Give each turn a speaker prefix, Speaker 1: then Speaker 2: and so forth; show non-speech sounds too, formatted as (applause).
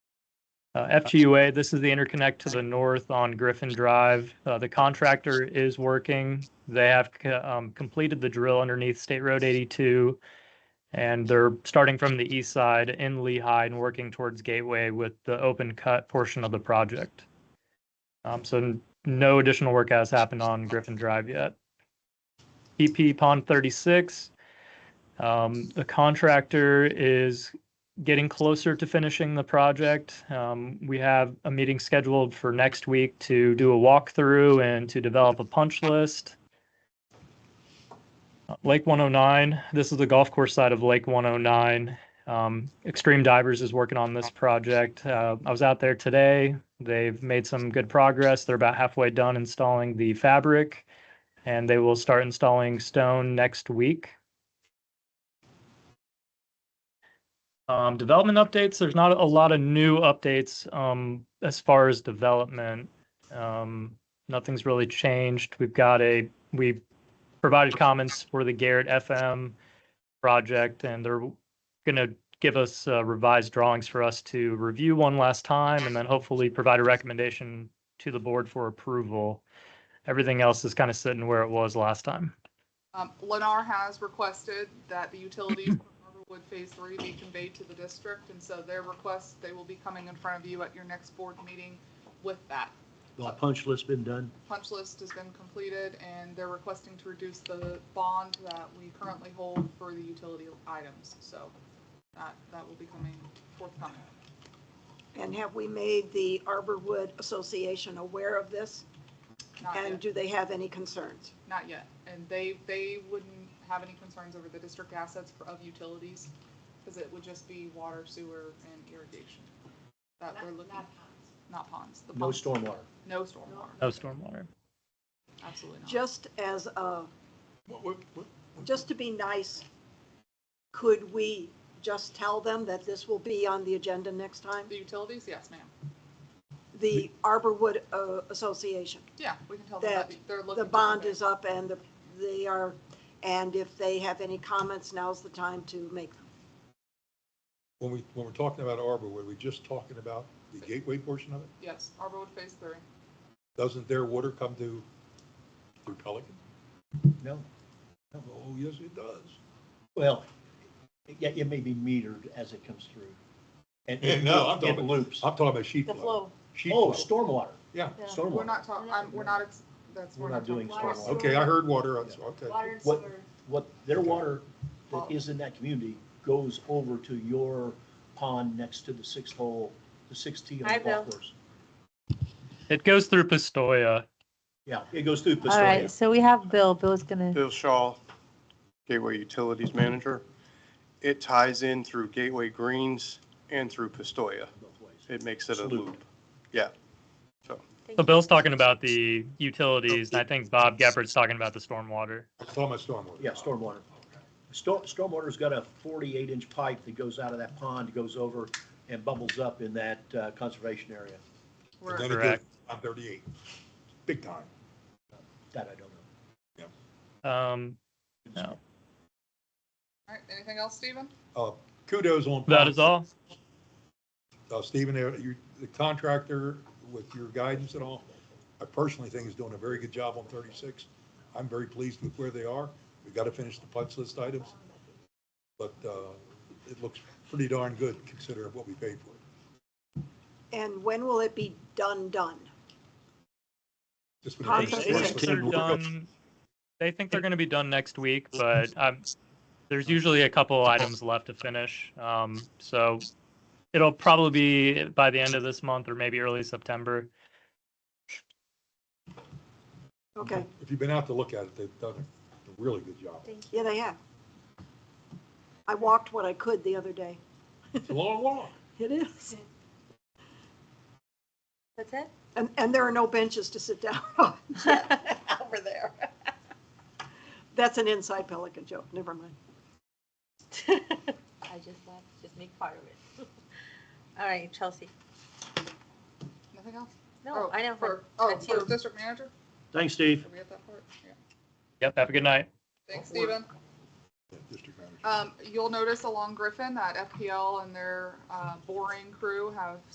Speaker 1: Uh, FGUA, this is the interconnect to the north on Griffin Drive. Uh, The contractor is working. They have c- um, completed the drill underneath State Road 82. And they're starting from the east side in Lehigh and working towards Gateway with the open cut portion of the project. Um, So n- no additional work has happened on Griffin Drive yet. EP Pond 36, um, the contractor is getting closer to finishing the project. Um, we have a meeting scheduled for next week to do a walkthrough and to develop a punch list. Uh, Lake 109, this is the golf course side of Lake 109. Um, Extreme Divers is working on this project. Uh, I was out there today. They've made some good progress. They're about halfway done installing the fabric and they will start installing stone next week. Um, development updates, there's not a lot of new updates, um, as far as development. Um, nothing's really changed. We've got a, we provided comments for the Garrett FM project and they're gonna give us uh, revised drawings for us to review one last time and then hopefully provide a recommendation to the board for approval. Everything else is kind of sitting where it was last time.
Speaker 2: Um, Lennar has requested that the utilities for Arborwood Phase Three be conveyed to the district, and so their request, they will be coming in front of you at your next board meeting with that.
Speaker 3: The punch list been done?
Speaker 2: Punch list has been completed, and they're requesting to reduce the bond that we currently hold for the utility items, so that, that will be coming forthcoming.
Speaker 4: And have we made the Arborwood Association aware of this?
Speaker 2: Not
Speaker 4: And
Speaker 2: yet,
Speaker 4: do they have any concerns?
Speaker 2: not yet, and they, they wouldn't have any concerns over the district assets for- of utilities, because it would just be water, sewer, and irrigation. That we're looking. not ponds. The
Speaker 3: No
Speaker 2: ponds-
Speaker 3: stormwater.
Speaker 2: No stormwater,
Speaker 1: No stormwater.
Speaker 2: absolutely not.
Speaker 4: Just as a, just to be nice, could we just tell them that this will be on the agenda next time?
Speaker 2: The utilities, yes, ma'am.
Speaker 4: The Arborwood uh, Association,
Speaker 2: Yeah, we can tell them
Speaker 4: That
Speaker 2: that they're looking.
Speaker 4: the
Speaker 2: to
Speaker 4: bond
Speaker 2: convey.
Speaker 4: is up and the- they are, and if they have any comments, now's the time to make them.
Speaker 5: When we, when we're talking about Arbor, were we just talking about the gateway portion of it?
Speaker 2: Yes, Arborwood Phase Three.
Speaker 5: Doesn't their water come to, through Pelican?
Speaker 3: No.
Speaker 5: Oh, yes, it does.
Speaker 3: Well, yeah, it may be metered as it comes through. And
Speaker 5: Yeah,
Speaker 3: it
Speaker 5: no, I'm talking
Speaker 3: it
Speaker 5: about-
Speaker 3: loops.
Speaker 5: I'm talking about sheet
Speaker 4: The
Speaker 5: flow.
Speaker 4: flow,
Speaker 5: Sheet
Speaker 3: Oh,
Speaker 5: flow.
Speaker 3: stormwater,
Speaker 5: Yeah,
Speaker 4: Yeah.
Speaker 3: stormwater.
Speaker 2: We're not talking, I'm, we're not, ex- that's,
Speaker 3: We're
Speaker 2: we're
Speaker 3: not
Speaker 2: not talking.
Speaker 3: doing
Speaker 2: about-
Speaker 3: stormwater.
Speaker 5: okay, I heard water, that's, okay.
Speaker 6: Water and
Speaker 3: What-
Speaker 6: sewer.
Speaker 3: What, their water that is in that community goes over to your pond next to the sixth hole, the sixth tee on
Speaker 6: I
Speaker 3: the golf
Speaker 6: will.
Speaker 3: course.
Speaker 1: It goes through Pistoia.
Speaker 3: Yeah, it goes through
Speaker 6: All right,
Speaker 3: Pistoia.
Speaker 6: so we have Bill. Bill's gonna,
Speaker 7: Bill Shaw, Gateway Utilities Manager. It ties in through Gateway Greens and through Pistoia.
Speaker 3: both ways.
Speaker 7: It makes it a
Speaker 3: It's looped.
Speaker 7: loop. Yeah.
Speaker 1: So Bill's talking about the utilities and I think Bob Geppert's talking about the stormwater.
Speaker 5: I'm talking about stormwater.
Speaker 3: Yeah, stormwater. Storm, stormwater's got a forty-eight inch pipe that goes out of that pond, goes over and bubbles up in that uh, conservation area.
Speaker 5: And
Speaker 2: We're,
Speaker 5: then it
Speaker 1: Correct.
Speaker 5: goes, I'm thirty-eight, big time.
Speaker 3: That I don't know.
Speaker 1: Um, no,
Speaker 2: all right, anything else, Stephen?
Speaker 5: Uh, kudos on.
Speaker 1: that is all.
Speaker 5: Uh, Stephen, uh, you, the contractor, with your guidance and all, I personally think is doing a very good job on thirty-six. I'm very pleased with where they are. We've got to finish the punch list items. But, uh, it looks pretty darn good considering what we paid for it.
Speaker 4: and when will it be done, done?
Speaker 5: Just when they
Speaker 4: Contractor
Speaker 5: finish the punch
Speaker 4: said
Speaker 1: They're
Speaker 5: list.
Speaker 1: done- They think they're going to be done next week, but um, there's usually a couple items left to finish. Um, so it'll probably be by the end of this month or maybe early September.
Speaker 4: Okay,
Speaker 5: If you've been out to look at it, they've done a really good job.
Speaker 4: yeah, they have. I walked what I could the other day.
Speaker 5: It's a long walk.
Speaker 4: It is.
Speaker 6: that's (laughs) it?
Speaker 4: And, and there are no benches to sit down (laughs) on
Speaker 6: (laughs)
Speaker 4: over there. That's an inside Pelican joke, never mind.
Speaker 6: I just left, just make part of it. All right, Chelsea.
Speaker 2: Nothing else? Oh,
Speaker 6: No, I know,
Speaker 2: For,
Speaker 6: but
Speaker 2: oh,
Speaker 6: that's
Speaker 2: for
Speaker 6: you.
Speaker 2: district manager?
Speaker 3: Thanks, Steve.
Speaker 2: Are we at that part? Yeah.
Speaker 1: Yep. Have a good night.
Speaker 2: Thanks,
Speaker 5: Don't worry.
Speaker 2: Stephen.
Speaker 5: Yeah, District manager.
Speaker 2: Um, you'll notice along Griffin that FPL and their, uh, boring crew have